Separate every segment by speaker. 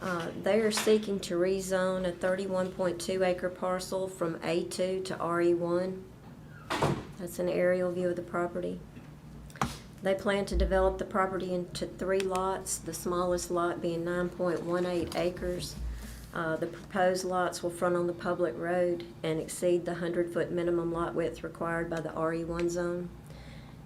Speaker 1: Uh, They are seeking to rezone a thirty-one point two acre parcel from A two to RE one. That's an aerial view of the property. They plan to develop the property into three lots, the smallest lot being nine point one eight acres. Uh, The proposed lots will front on the public road and exceed the hundred-foot minimum lot width required by the RE one zone.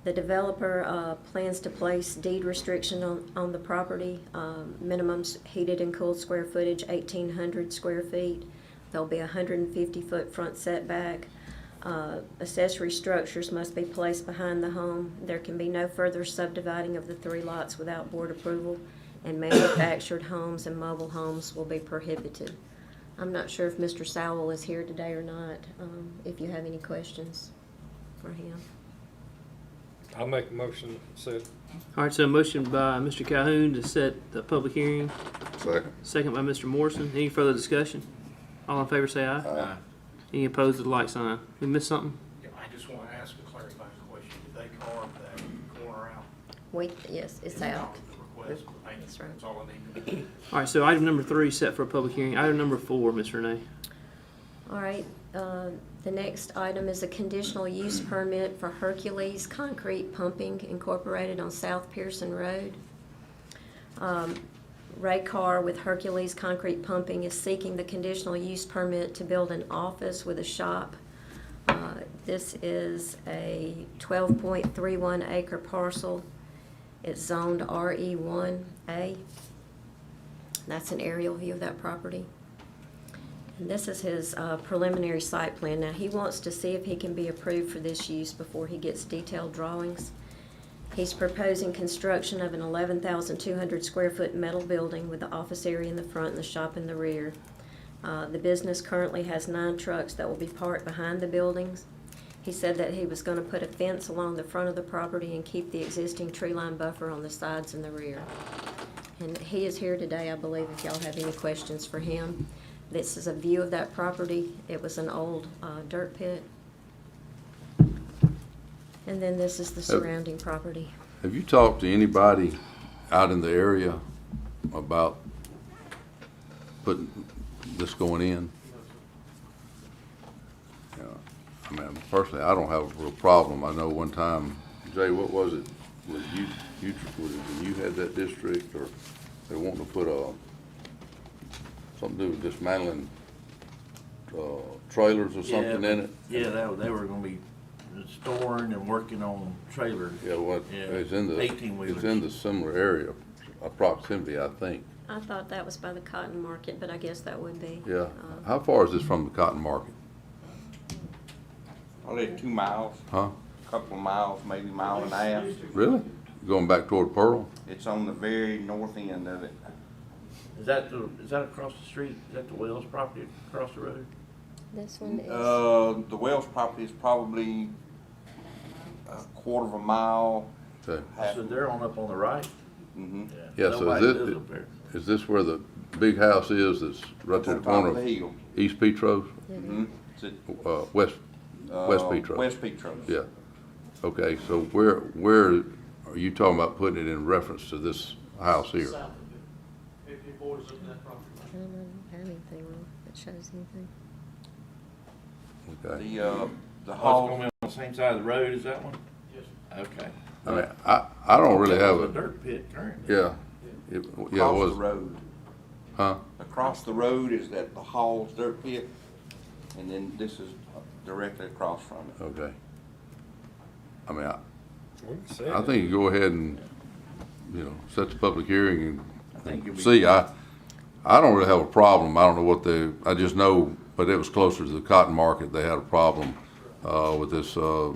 Speaker 1: The developer uh, plans to place deed restriction on, on the property, um, minimums heated and cooled square footage, eighteen hundred square feet. There'll be a hundred and fifty-foot front setback. Uh, Accessory structures must be placed behind the home. There can be no further subdividing of the three lots without board approval, and manufactured homes and mobile homes will be prohibited. I'm not sure if Mr. Sowell is here today or not, um, if you have any questions for him.
Speaker 2: I'll make a motion, so,
Speaker 3: All right, so a motion by Mr. Calhoun to set the public hearing,
Speaker 4: Second.
Speaker 3: second by Mr. Morrison. Any further discussion? All in favor say aye.
Speaker 4: Aye.
Speaker 3: Any opposed with a like sign. We missed something?
Speaker 5: Yeah, I just want to ask a clarifying question. Did they carve that corner out?
Speaker 1: We, yes, it's out.
Speaker 5: The request, Thank you.
Speaker 1: That's right.
Speaker 5: that's all I need to know.
Speaker 3: All right, so item number three set for a public hearing. Item number four, Ms. Renee.
Speaker 1: All right, uh, the next item is a conditional use permit for Hercules Concrete Pumping Incorporated on South Pearson Road. Um, Ray Carr with Hercules Concrete Pumping is seeking the conditional use permit to build an office with a shop. Uh, This is a 12.31 acre parcel. It's zoned RE1A. That's an aerial view of that property. And this is his uh, preliminary site plan. Now, he wants to see if he can be approved for this use before he gets detailed drawings. He's proposing construction of an eleven thousand two hundred square foot metal building with the office area in the front and the shop in the rear. Uh, The business currently has nine trucks that will be parked behind the buildings. He said that he was gonna put a fence along the front of the property and keep the existing tree line buffer on the sides and the rear. And he is here today, I believe, if y'all have any questions for him. This is a view of that property. It was an old uh, dirt pit. And then this is the surrounding property.
Speaker 4: Have you talked to anybody out in the area about putting, this going in? Yeah, I mean, personally, I don't have a real problem. I know one time, Jay, what was it? Was you, you, was it when you had that district or they wanting to put a, something to do with dismantling, uh, trailers or something in it?
Speaker 6: Yeah, they, were- they were gonna be storing and working on trailers.
Speaker 4: Yeah, well,
Speaker 6: Yeah,
Speaker 4: it's in the, it's in
Speaker 6: 18-wheelers.
Speaker 4: the similar area, uh, proximity, I think.
Speaker 1: I thought that was by the cotton market, but I guess that would be.
Speaker 4: Yeah.
Speaker 1: uh,
Speaker 4: How far is this from the cotton market?
Speaker 7: I live two miles,
Speaker 4: Huh?
Speaker 7: a couple of miles, maybe a mile and a half.
Speaker 4: Really? Going back toward Pearl?
Speaker 7: It's on the very north end of it.
Speaker 6: Is that the, is that across the street? Is that the Wells property across the road?
Speaker 1: This one is,
Speaker 7: Uh, the Wells property is probably a quarter of a mile.
Speaker 4: Okay.
Speaker 7: half-
Speaker 6: So they're on up on the right?
Speaker 7: mhm.
Speaker 4: Mm-hmm. Yeah, so
Speaker 6: Nobody
Speaker 4: is
Speaker 6: lives
Speaker 4: it-
Speaker 6: up there.
Speaker 4: Is this where the big house is that's right
Speaker 7: It's
Speaker 4: to the
Speaker 7: on top
Speaker 4: corner
Speaker 7: of the
Speaker 4: of
Speaker 7: hill.
Speaker 4: East Petros,
Speaker 7: Mhm. It's at,
Speaker 4: uh, West,
Speaker 7: uh,
Speaker 4: West Petros?
Speaker 7: West Petros.
Speaker 4: Yeah. Okay, so where, where are you talking about putting it in reference to this house here?
Speaker 8: If it borders up that property line.
Speaker 1: I don't have anything on it that shows anything.
Speaker 4: Okay.
Speaker 7: The, uh, the
Speaker 6: Oh, it's gonna
Speaker 7: hall,
Speaker 6: be on the same side of the road as that one?
Speaker 8: Yes,
Speaker 6: Okay.
Speaker 4: I mean, I, I don't really have
Speaker 6: It's a
Speaker 4: a,
Speaker 6: dirt pit currently.
Speaker 4: yeah. It- Yeah, it
Speaker 7: across the
Speaker 4: was,
Speaker 7: road.
Speaker 4: huh?
Speaker 7: Across the road is that the hall's dirt pit, and then this is directly across from it.
Speaker 4: Okay. I mean, I,
Speaker 2: we can say
Speaker 4: I
Speaker 2: it.
Speaker 4: think you go ahead and, you know, set the public hearing
Speaker 6: I think you'll
Speaker 4: and
Speaker 6: be-
Speaker 4: see, I, I don't really have a problem, I don't know what they, I just know, but it was closer to the cotton market, they had a problem, uh, with this, uh,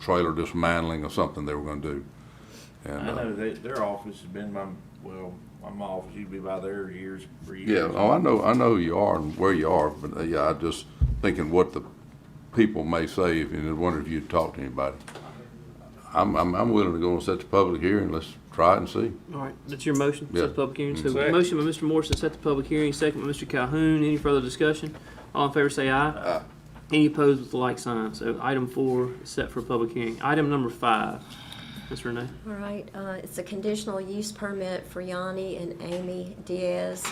Speaker 4: trailer dismantling or something they were gonna do.
Speaker 6: I
Speaker 4: And, uh,
Speaker 6: know they, their office has been my, well, my office used to be by there years, for years.
Speaker 4: yeah, oh, I know, I know who you are and where you are, but, uh, yeah, I just thinking what the people may say, if, and I wonder if you'd talk to anybody. I'm, I'm, I'm willing to go and set the public hearing, let's try it and see.
Speaker 3: All right, that's your motion,
Speaker 4: Yeah.
Speaker 3: set the public hearing. So
Speaker 2: Second.
Speaker 3: motion by Mr. Morrison, set the public hearing, second by Mr. Calhoun. Any further discussion? All in favor say aye. Aye. Any opposed with a like sign. So item four is set for a public hearing. Item number five, Ms. Renee.
Speaker 1: All right, uh, it's a conditional use permit for Yanni and Amy Diaz